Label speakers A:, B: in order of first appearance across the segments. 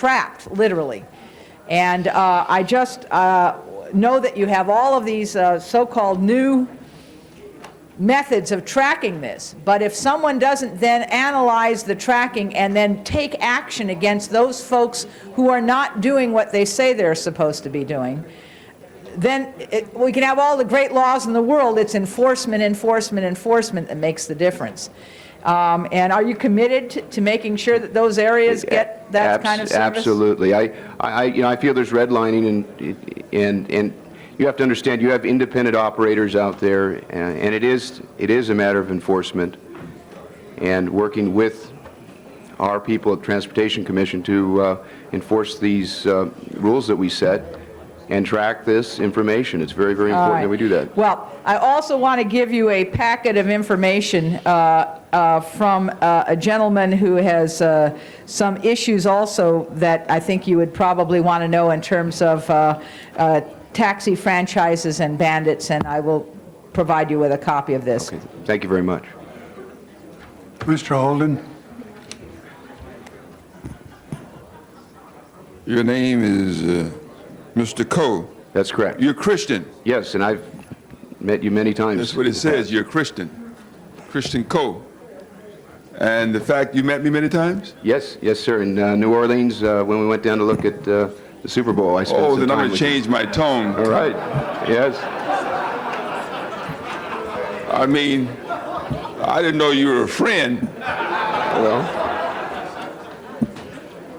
A: trapped, literally. And uh, I just uh, know that you have all of these uh, so-called new methods of tracking this, but if someone doesn't then analyze the tracking and then take action against those folks who are not doing what they say they're supposed to be doing, then it, we can have all the great laws in the world, it's enforcement, enforcement, enforcement that makes the difference. Um, And are you committed to- to making sure that those areas get that
B: Abs-
A: kind of service?
B: Absolutely. I, I, I- you know, I feel there's redlining and, and, and you have to understand, you have independent operators out there, a- and it is, it is a matter of enforcement and working with our people at Transportation Commission to uh, enforce these uh, rules that we set and track this information. It's very, very important that we do that.
A: Well, I also want to give you a packet of information uh, uh, from uh, a gentleman who has uh, some issues also that I think you would probably want to know in terms of uh, uh, taxi franchises and bandits, and I will provide you with a copy of this.
B: Okay. Thank you very much.
C: Mr. Holden?
D: Your name is uh, Mr. Cole.
B: That's correct.
D: You're Christian.
B: Yes, and I've met you many
D: That's
B: times.
D: what it says. You're Christian. Christian Cole. And the fact you met me many times?
B: Yes, yes, sir. In uh, New Orleans, uh, when we went down to look at uh, the Super Bowl, I spent
D: Oh,
B: some
D: then I'm
B: time
D: going to
B: with you.
D: change my tone.
B: All right. Yes.
D: I mean, I didn't know you were a friend.
B: Well,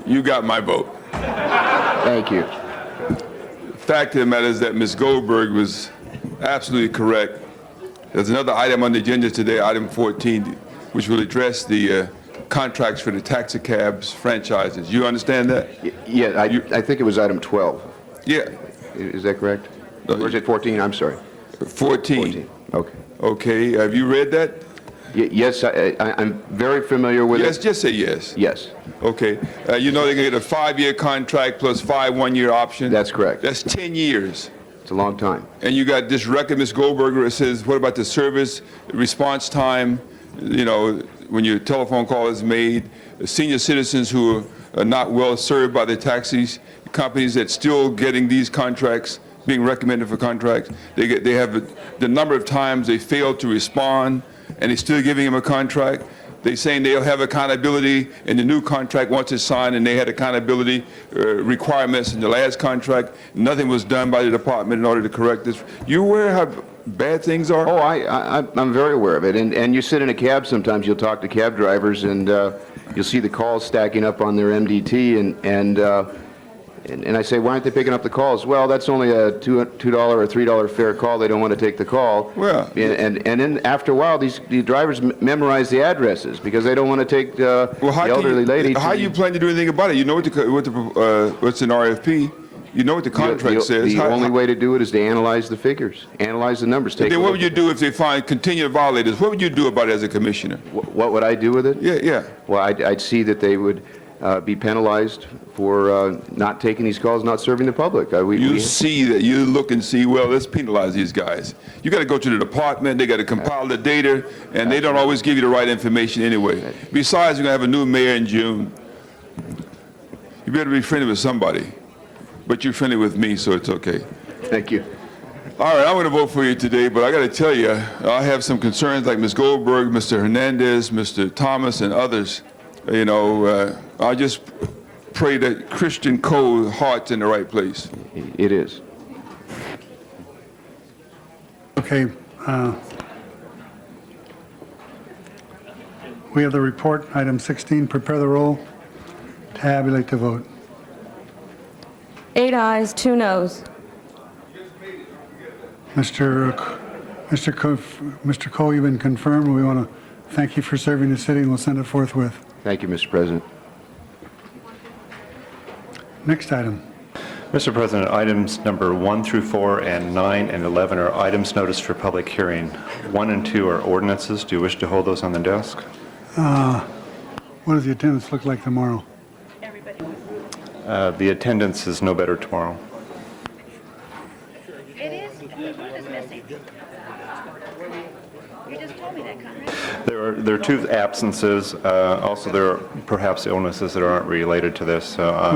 D: You got my vote.
B: thank you.
D: fact of the matter is that Ms. Goldberg was absolutely correct. There's another item on the agenda today, item 14, which will address the uh, contracts for the taxi cabs franchises. You understand that?
B: Y- Yeah, I, I think it was item 12.
D: Yeah,
B: I- Is that correct?
D: No,
B: Or is it 14? I'm sorry.
D: 14.
B: 14. Okay.
D: Okay, have you read that?
B: Y- yes, I, I, I'm very familiar with
D: Yes,
B: it.
D: just say yes.
B: Yes.
D: Okay, Uh, you know they can get a five-year contract plus five one-year options?
B: That's correct.
D: That's 10 years.
B: It's a long time.
D: And you got this record, Ms. Goldberger, it says, what about the service response time? You know, when your telephone call is made, senior citizens who are- are not well served by the taxis, companies that still getting these contracts, being recommended for contracts, they get, they have, the number of times they fail to respond, and they're still giving them a contract. They saying they'll have accountability in the new contract once it's signed, and they had accountability uh, requirements in the last contract. Nothing was done by the department in order to correct this. You aware how bad things are?
B: Oh, I, I, I'm- I'm very aware of it. And, and you sit in a cab sometimes, you'll talk to cab drivers, and uh, you'll see the calls stacking up on their MDT, and, and, uh, and and I say, why aren't they picking up the calls? Well, that's only a two, $2 or $3 fare call, they don't want to take the call.
D: Well-
B: And, and, and then after a while, these, the drivers m- memorize the addresses, because they don't want to take uh, the
D: Well, how can
B: elderly
D: you,
B: lady to...
D: How you plan to do anything about it? You know what the co- what the uh, what's an RFP? You know what the
B: the-
D: contract
B: the-
D: says.
B: The
D: How-
B: only
D: how-
B: way to do it is to analyze the figures, analyze the numbers, take a
D: Then what would
B: look.
D: you do if they find continued violators? What would you do about it as a commissioner?
B: Wh- What would I do with it?
D: Yeah, yeah.
B: Well, I'd, I'd see that they would uh, be penalized for uh, not taking these calls, not serving the public. Uh, we-
D: You
B: we-
D: see that, you look and see, well, let's penalize these guys. You got to go to the department, they got to compile the data, and they don't always give you the right information anyway. Besides, you're going to have a new mayor in June. You better be friendly with somebody, but you're friendly with me, so it's okay.
B: Thank you.
D: All right, I'm going to vote for you today, but I got to tell you, I have some concerns like Ms. Goldberg, Mr. Hernandez, Mr. Thomas, and others. You know, uh, I just pray that Christian Cole's heart's in the right place.
B: It is.
C: Okay. uh, We have the report, item 16, prepare the roll, tabulate the vote.
E: Eight eyes, two noes.
C: Mr. C- Mr. Co- Mr. Cole, you've been confirmed. We want to thank you for serving the city, and we'll send it forthwith.
B: Thank you, Mr. President.
C: Next item.
F: Mr. President, items number one through four and nine and 11 are items noticed for public hearing. One and two are ordinances. Do you wish to hold those on the desk?
C: What does the attendance look like tomorrow?
F: Uh, The attendance is no better tomorrow.
G: It is, the group is missing. You just told me that, Conrad.
F: There are, there are two absences. Uh, Also, there are perhaps illnesses that aren't related to this. So, uh,